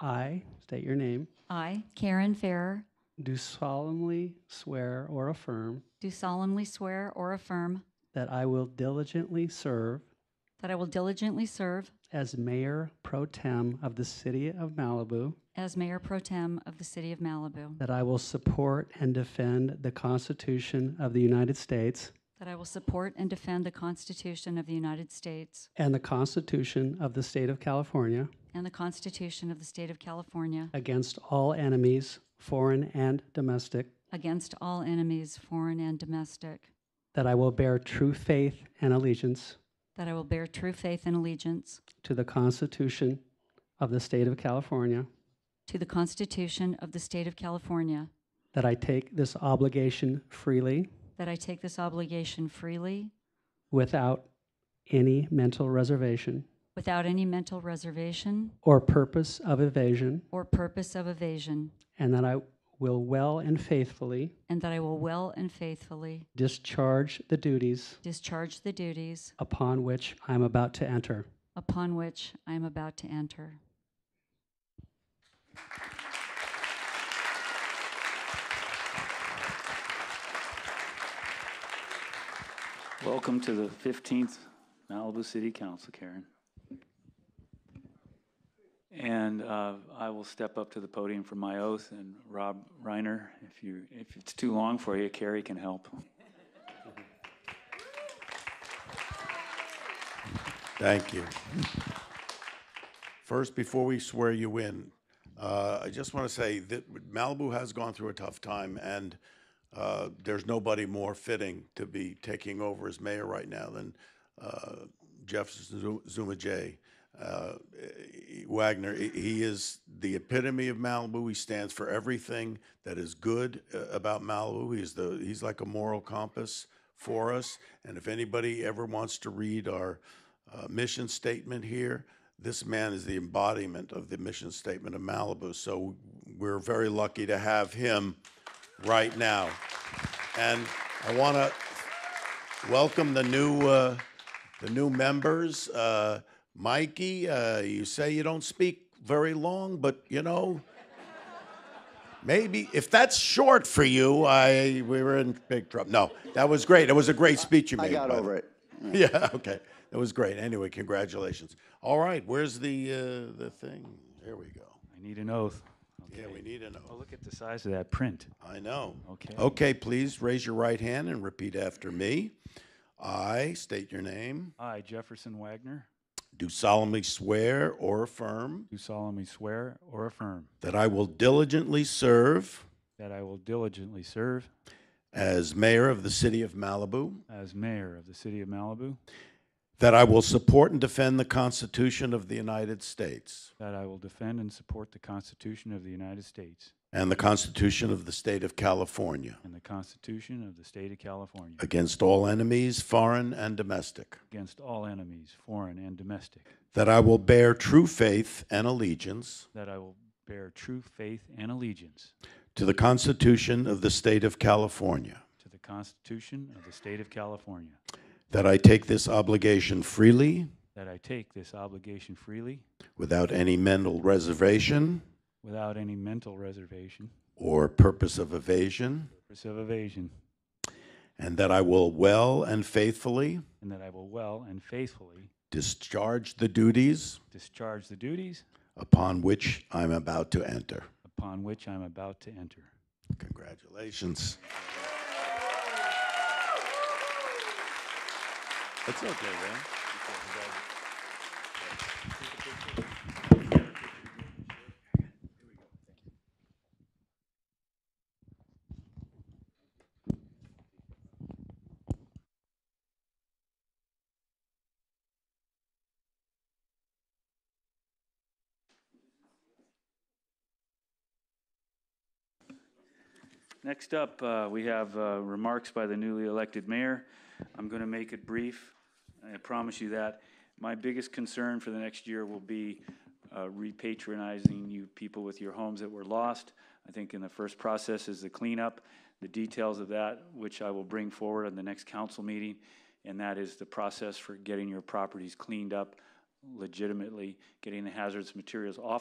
I, state your name, I, Karen Farrer, do solemnly swear or affirm do solemnly swear or affirm that I will diligently serve that I will diligently serve as Mayor Pro Tem of the City of Malibu, as Mayor Pro Tem of the City of Malibu, that I will support and defend the Constitution of the United States that I will support and defend the Constitution of the United States and the Constitution of the State of California and the Constitution of the State of California against all enemies, foreign and domestic, against all enemies, foreign and domestic, that I will bear true faith and allegiance that I will bear true faith and allegiance to the Constitution of the State of California, to the Constitution of the State of California, that I take this obligation freely that I take this obligation freely without any mental reservation without any mental reservation or purpose of evasion, or purpose of evasion, and that I will well and faithfully and that I will well and faithfully discharge the duties discharge the duties upon which I am about to enter. upon which I am about to enter. Welcome to the 15th Malibu City Council, Karen. And uh, I will step up to the podium for my oath, and Rob Reiner, if you, if it's too long for you, Carrie can help. Thank you. First, before we swear you in, uh, I just want to say that Malibu has gone through a tough time, and uh, there's nobody more fitting to be taking over as mayor right now than uh, Jeff Zu- Zuma Jay. Uh, Wagner, he- he is the epitome of Malibu. He stands for everything that is good uh, about Malibu. He's the he's like a moral compass for us. And if anybody ever wants to read our uh, mission statement here, this man is the embodiment of the mission statement of Malibu. So we're very lucky to have him right now. And I want to welcome the new uh, the new members. Uh, Mikey, uh, you say you don't speak very long, but you know, maybe if that's short for you, I we were in big trouble. No, that was great. It was a great speech you I made. got by the- over it. Yeah, okay, that was great. Anyway, congratulations. All right, where's the uh, the thing? There we go. I need an oath. Yeah, we need to Oh, know. Look at the size of that print. I know. Okay. Okay, please raise your right hand and repeat after me. I state your name. I, Jefferson Wagner, Do solemnly swear or affirm do solemnly swear or affirm that I will diligently serve that I will diligently serve as mayor of the city of Malibu, as mayor of the city of Malibu, that I will support and defend the Constitution of the United States that I will defend and support the Constitution of the United States and the Constitution of the state of California and the Constitution of the state of California. against all enemies, foreign and domestic, against all enemies, foreign and domestic, that I will bear true faith and allegiance that I will bear true faith and allegiance to the Constitution of the state of California, to the Constitution of the State of California, that I take this obligation freely that I take this obligation freely without any mental reservation without any mental reservation, or purpose of evasion. purpose of evasion, And that I will well and faithfully and that I will well and faithfully discharge the duties discharge the duties upon which I'm about to enter. upon which I am about to enter. Congratulations. It's okay, man. Next up, uh, we have uh, remarks by the newly elected mayor. I'm going to make it brief. I promise you that. My biggest concern for the next year will be uh, repatronizing you people with your homes that were lost. I think in the first process is the cleanup, the details of that, which I will bring forward at the next council meeting. And that is the process for getting your properties cleaned up legitimately, getting the hazardous materials off